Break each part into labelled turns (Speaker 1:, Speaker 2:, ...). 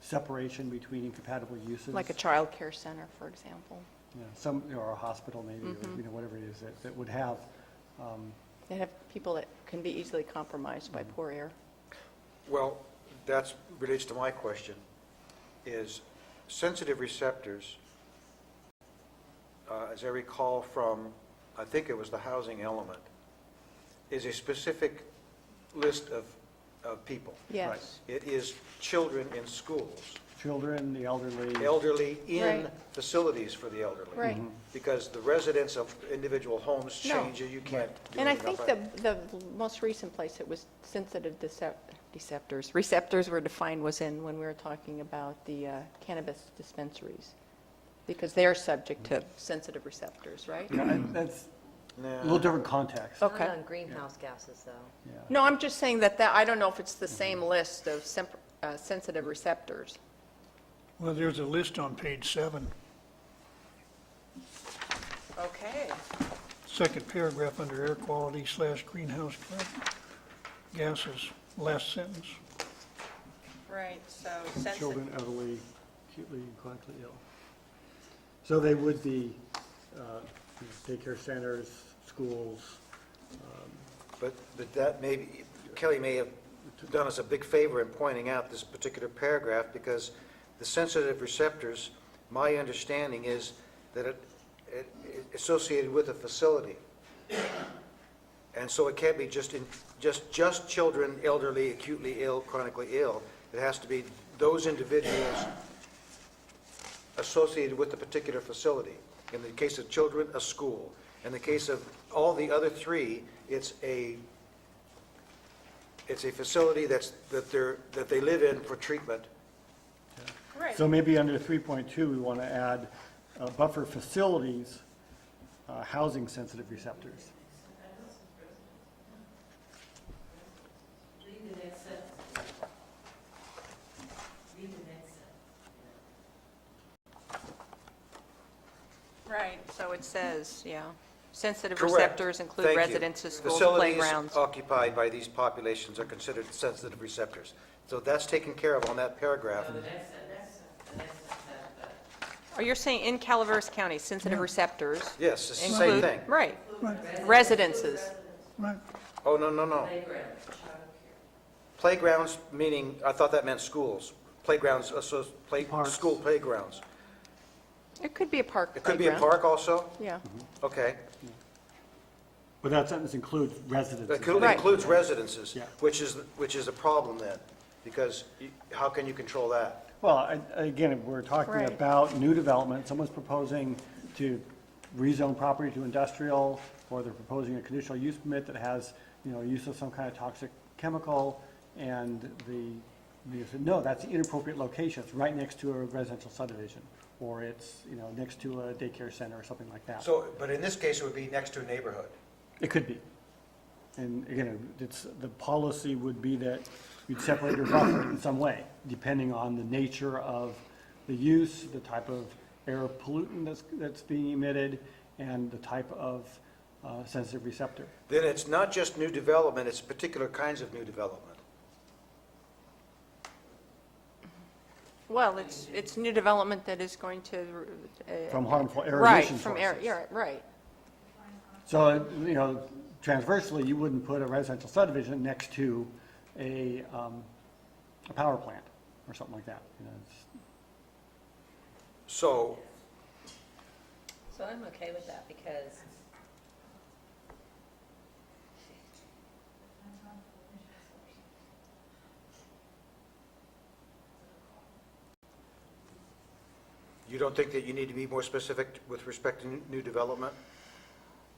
Speaker 1: separation between incompatible uses.
Speaker 2: like a childcare center, for example.
Speaker 1: You know, Some, or a hospital maybe,
Speaker 2: Mm-hmm.
Speaker 1: or, you know, whatever it is, that, that would have, um,
Speaker 2: They have people that can be easily compromised by poor air.
Speaker 3: Well, that's, relates to my question, is sensitive receptors, uh, as I recall from, I think it was the housing element, is a specific list of, of people.
Speaker 2: Yes.
Speaker 3: It is children in schools,
Speaker 1: children, the elderly.
Speaker 3: elderly in
Speaker 2: Right.
Speaker 3: facilities for the elderly.
Speaker 2: Right.
Speaker 3: Because the residents of individual homes
Speaker 2: No.
Speaker 3: change, and you can't do
Speaker 2: And I
Speaker 3: anything
Speaker 2: think
Speaker 3: about
Speaker 2: the,
Speaker 3: it.
Speaker 2: the most recent place it was sensitive decep- deceptors, receptors were defined was in when we were talking about the uh, cannabis dispensaries, because they are subject to
Speaker 3: Mm-hmm.
Speaker 2: sensitive receptors, right?
Speaker 1: Yeah, and That's a
Speaker 3: Nah.
Speaker 1: little different context,
Speaker 2: Oh.
Speaker 4: Not
Speaker 2: Okay.
Speaker 4: on greenhouse gases, though.
Speaker 1: yeah.
Speaker 2: No, I'm just saying that, that, I don't know if it's the same
Speaker 3: Mm-hmm.
Speaker 2: list of semp- uh, sensitive receptors.
Speaker 5: Well, there's a list on page seven,
Speaker 2: Okay.
Speaker 5: second paragraph under air quality slash greenhouse gases, last sentence.
Speaker 2: Right, so
Speaker 1: Children, elderly, acutely and chronically ill. So they would be uh, you know, daycare centers, schools.
Speaker 3: But, but that maybe, Kelly may have done us a big favor in pointing out this particular paragraph, because the sensitive receptors, my understanding is that it, it it associated with a facility. And so it can't be just in, just, just children, elderly, acutely ill, chronically ill. It has to be those individuals associated with the particular facility. In the case of children, a school. In the case of all the other three, it's a, it's a facility that's, that they're, that they live in for treatment.
Speaker 1: So maybe under 3.2, we want to add uh, buffer facilities, uh, housing sensitive receptors.
Speaker 6: Read the next sentence. Read the next sentence.
Speaker 2: Right, so it says, yeah, sensitive
Speaker 3: Correct.
Speaker 2: receptors
Speaker 3: Thank
Speaker 2: include
Speaker 3: you.
Speaker 2: residences, schools,
Speaker 3: Facilities uh,
Speaker 2: playgrounds.
Speaker 3: occupied by these populations are considered sensitive receptors. So that's taken care of on that paragraph.
Speaker 2: Or you're saying in Calaveras County, sensitive receptors
Speaker 3: Yes, it's the same
Speaker 2: include...
Speaker 3: thing.
Speaker 2: Right,
Speaker 5: Right,
Speaker 2: residences.
Speaker 5: right.
Speaker 3: Oh, no, no, no. Playgrounds, meaning, I thought that meant schools. Playgrounds, asso- play,
Speaker 1: Parks.
Speaker 3: school playgrounds.
Speaker 2: It could be a park
Speaker 3: It could be a
Speaker 2: playground.
Speaker 3: park also?
Speaker 2: Yeah,
Speaker 3: Okay.
Speaker 1: But that sentence includes residences.
Speaker 3: That could-
Speaker 2: Right.
Speaker 3: includes residences,
Speaker 1: Yeah.
Speaker 3: which is, which is a problem then, because you- how can you control that?
Speaker 1: Well, I- again, if we're talking
Speaker 2: Right.
Speaker 1: about new development, someone's proposing to rezone property to industrial, or they're proposing a conditional use permit that has, you know, use of some kind of toxic chemical, and the, they said, no, that's the inappropriate location, it's right next to a residential subdivision, or it's, you know, next to a daycare center or something like that.
Speaker 3: So, but in this case, it would be next to a neighborhood.
Speaker 1: It could be. And again, it's, the policy would be that you'd separate your buffer in some way, depending on the nature of the use, the type of air pollutant that's, that's being emitted, and the type of uh, sensitive receptor.
Speaker 3: Then it's not just new development, it's particular kinds of new development.
Speaker 2: well, it's, it's new development that is going to... uh,
Speaker 1: From harmful air
Speaker 2: Right,
Speaker 1: emission
Speaker 2: from air,
Speaker 1: sources.
Speaker 2: yeah, right.
Speaker 1: So, you know, transversely, you wouldn't put a residential subdivision next to a, um, a power plant or something like that. You know, it's-
Speaker 3: So,
Speaker 4: So I'm okay with that because
Speaker 3: you don't think that you need to be more specific with respect to new- new development?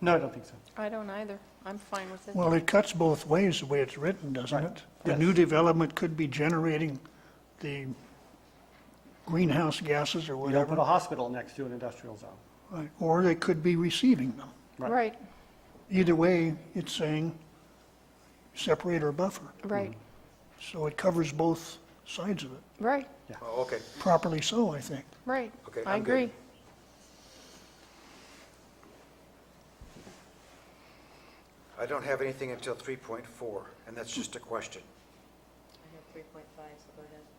Speaker 1: No, I don't think so.
Speaker 2: I don't either. I'm fine with it.
Speaker 5: Well, it cuts both ways the way it's written, doesn't it? The
Speaker 1: Yes.
Speaker 5: new development could be generating the greenhouse gases or
Speaker 1: You don't put a
Speaker 5: whatever,
Speaker 1: hospital next to an industrial zone.
Speaker 5: right, or they could be receiving them.
Speaker 1: Right.
Speaker 2: Right,
Speaker 5: Either way, it's saying separate or buffer,
Speaker 2: right,
Speaker 5: so it covers both sides of it,
Speaker 2: right,
Speaker 3: Oh, okay,
Speaker 5: properly so, I think.
Speaker 2: right.
Speaker 3: Okay,
Speaker 2: I
Speaker 3: I'm good.
Speaker 2: agree.
Speaker 3: I don't have anything until 3.4, and that's just a question.
Speaker 4: I have 3.5, so go ahead.